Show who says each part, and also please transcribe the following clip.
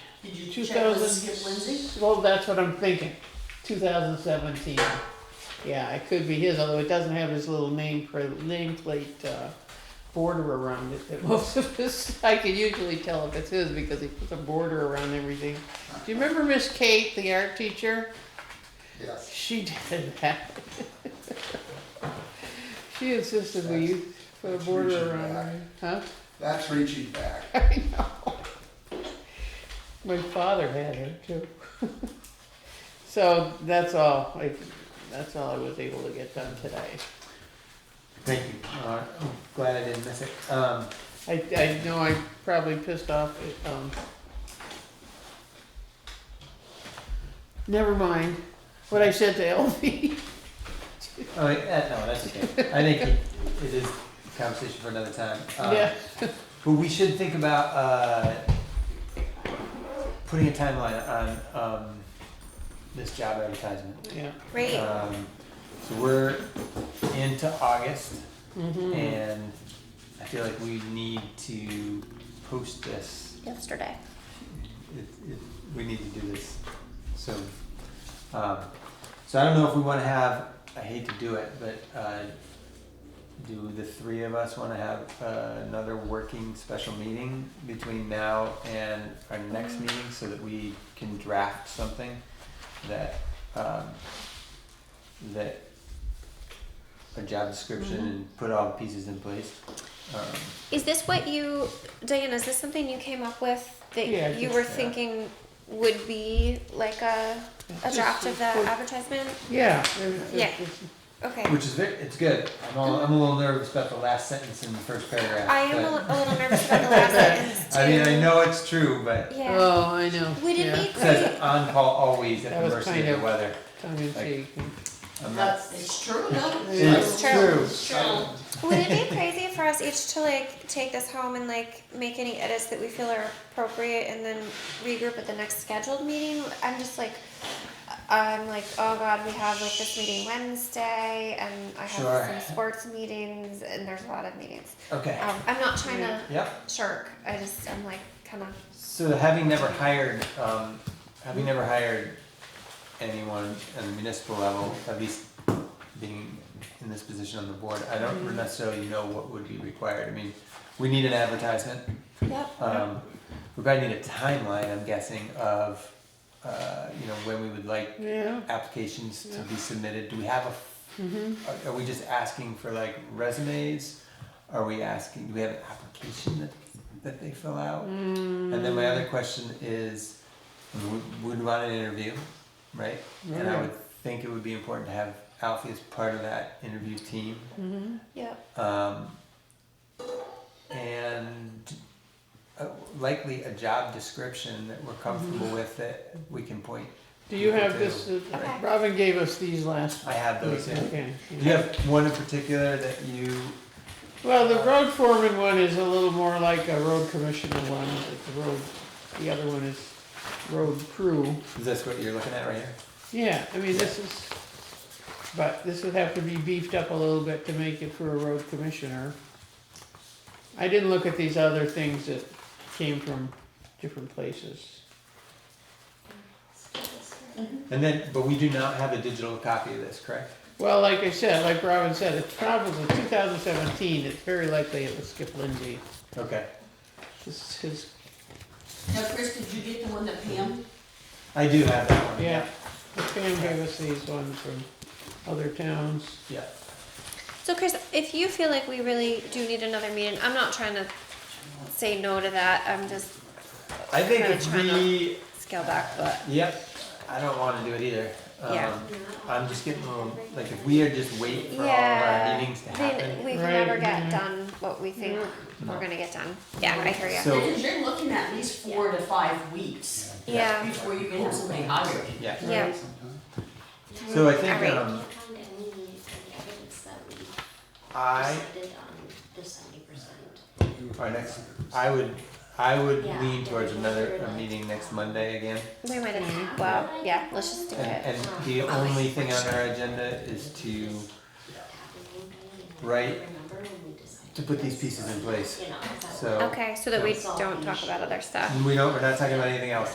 Speaker 1: Did you check with
Speaker 2: 2000.
Speaker 1: Skip Lindsey?
Speaker 2: Well, that's what I'm thinking. 2017. Yeah, it could be his, although it doesn't have his little name pr- nameplate uh, border around it that most of us. I can usually tell if it's his because he puts a border around everything. Do you remember Miss Kate, the art teacher?
Speaker 3: Yes.
Speaker 2: She did that. she insisted we use put a
Speaker 3: That's
Speaker 2: border
Speaker 3: reaching
Speaker 2: around
Speaker 3: back.
Speaker 2: it. Huh?
Speaker 3: That's reaching back.
Speaker 2: I know. My father had her too. so that's all. I, that's all I was able to get done today.
Speaker 4: Thank you. Uh, I'm glad I didn't miss it. Um,
Speaker 2: I, I know I probably pissed off. Um, never mind what I said to LV.
Speaker 4: oh, wait, uh, no, that's okay. I think it- it is a conversation for another time. Um,
Speaker 2: yeah.
Speaker 4: But we should think about uh, putting a timeline on um, this job advertisement.
Speaker 2: Yeah.
Speaker 5: Great.
Speaker 4: Um, so we're into August,
Speaker 2: Mm-hmm.
Speaker 4: and I feel like we need to post this.
Speaker 5: Yesterday.
Speaker 4: It, it, we need to do this. So, um, so I don't know if we want to have. I hate to do it, but uh, do the three of us want to have uh, another working special meeting between now and our next meeting so that we can draft something that um, that a job description and put all the pieces in place. Um,
Speaker 5: Is this what you, Diana? Is this something you came up with that
Speaker 2: Yeah, I
Speaker 5: you
Speaker 2: think
Speaker 5: were
Speaker 4: so.
Speaker 5: thinking would be like a, a draft of the advertisement?
Speaker 2: Mm-hmm. Yeah.
Speaker 5: Yeah. Okay.
Speaker 4: Which is very, it's good. I'm, all, I'm a little nervous about the last sentence in the first paragraph.
Speaker 5: I am a,
Speaker 4: but-
Speaker 5: li- a little nervous about the last sentence.
Speaker 4: I mean, I
Speaker 5: too.
Speaker 4: know it's true, but
Speaker 5: Yeah.
Speaker 2: Oh, I know.
Speaker 5: Would it
Speaker 2: yeah.
Speaker 5: be
Speaker 4: it
Speaker 5: great?
Speaker 4: says on call always at
Speaker 2: That
Speaker 4: the
Speaker 2: was kind
Speaker 4: mercy of
Speaker 2: of-
Speaker 4: the weather.
Speaker 2: Tongue in cheek.
Speaker 4: I'm not-
Speaker 1: That's, it's true, though.
Speaker 4: It's true.
Speaker 1: True.
Speaker 5: Would it be crazy for us each to like take this home and like make any edits that we feel are appropriate and then regroup at the next scheduled meeting? I'm just like, I'm like, oh god, we have like this meeting Wednesday and I have
Speaker 4: Sure.
Speaker 5: some sports meetings and there's a lot of meetings.
Speaker 4: Okay.
Speaker 5: Um, I'm not trying to
Speaker 4: Yep.
Speaker 5: shirk. I just I'm like kind of
Speaker 4: So having never hired, um, having never hired anyone at the municipal level, at least being in this position on the board, I
Speaker 5: Mm-hmm.
Speaker 4: don't necessarily know what would be required. I mean, we need an advertisement.
Speaker 5: yep.
Speaker 4: Um, we probably need a timeline, I'm guessing, of, uh, you know, when we would like
Speaker 2: Yeah.
Speaker 4: applications to be submitted. Do we have a,
Speaker 2: Mm-hmm.
Speaker 4: are- are we just asking for like resumes? Are we asking, do we have an application that, that they fill out? And then my other question is, would, would want an interview, right? And I would think it would be important to have Alfie as part of that interview team.
Speaker 2: Mm-hmm.
Speaker 5: Yep.
Speaker 4: Um, and uh, likely a job description that we're comfortable with that we can point.
Speaker 2: Do you have this? uh,
Speaker 5: Okay.
Speaker 2: Robin gave us these last.
Speaker 4: I have those. Yeah.
Speaker 2: Okay.
Speaker 4: Do you have one in particular that you?
Speaker 2: Well, the road foreman one is a little more like a road commissioner one, but the road, the other one is road crew.
Speaker 4: Is this what you're looking at right here?
Speaker 2: Yeah, I mean, this is, but this would have to be beefed up a little bit to make it for a road commissioner. I didn't look at these other things that came from different places.
Speaker 4: And then, but we do not have a digital copy of this, correct?
Speaker 2: Well, like I said, like Robin said, it's probably two thousand seventeen, it's very likely it was Skip Lindsey.
Speaker 4: Okay.
Speaker 2: This is his,
Speaker 1: Now, Chris, did you get the one that Pam?
Speaker 4: I do have that one.
Speaker 2: yeah, Pam gave us these ones from other towns.
Speaker 4: Yeah.
Speaker 5: So Chris, if you feel like we really do need another meeting, I'm not trying to say no to that. I'm just
Speaker 4: I think
Speaker 5: Kinda
Speaker 4: if
Speaker 5: trying to-
Speaker 4: we,
Speaker 5: scale back, but
Speaker 4: yep, I don't wanna do it either.
Speaker 5: Yeah.
Speaker 4: Um, I'm just getting a little, like, if we are just waiting for all of our
Speaker 5: Yeah,
Speaker 4: meetings to
Speaker 5: Then
Speaker 4: happen.
Speaker 5: we can
Speaker 2: Right,
Speaker 5: never get
Speaker 2: yeah.
Speaker 5: done what we think
Speaker 4: No.
Speaker 5: we're gonna get done. Yeah, I hear you.
Speaker 4: So-
Speaker 1: Because you're looking at least four to five weeks
Speaker 5: Yeah,
Speaker 1: before you can have somebody hired.
Speaker 4: Yeah,
Speaker 5: yeah,
Speaker 4: so I think,
Speaker 5: Alright.
Speaker 4: um,
Speaker 6: Found any, any evidence that we
Speaker 4: I,
Speaker 6: decided um, on the seventy percent?
Speaker 4: our next, I would, I would
Speaker 6: Yeah.
Speaker 4: lean towards another, a meeting next Monday again.
Speaker 5: we might have, well, yeah, let's just do
Speaker 4: And,
Speaker 5: it.
Speaker 4: and the only thing on our agenda is to, Right.
Speaker 6: Remember when we decided?
Speaker 4: to put these pieces in place,
Speaker 6: You know, is that-
Speaker 4: so.
Speaker 5: Okay, so that we don't talk about other stuff.
Speaker 4: We don't, we're not talking about anything else.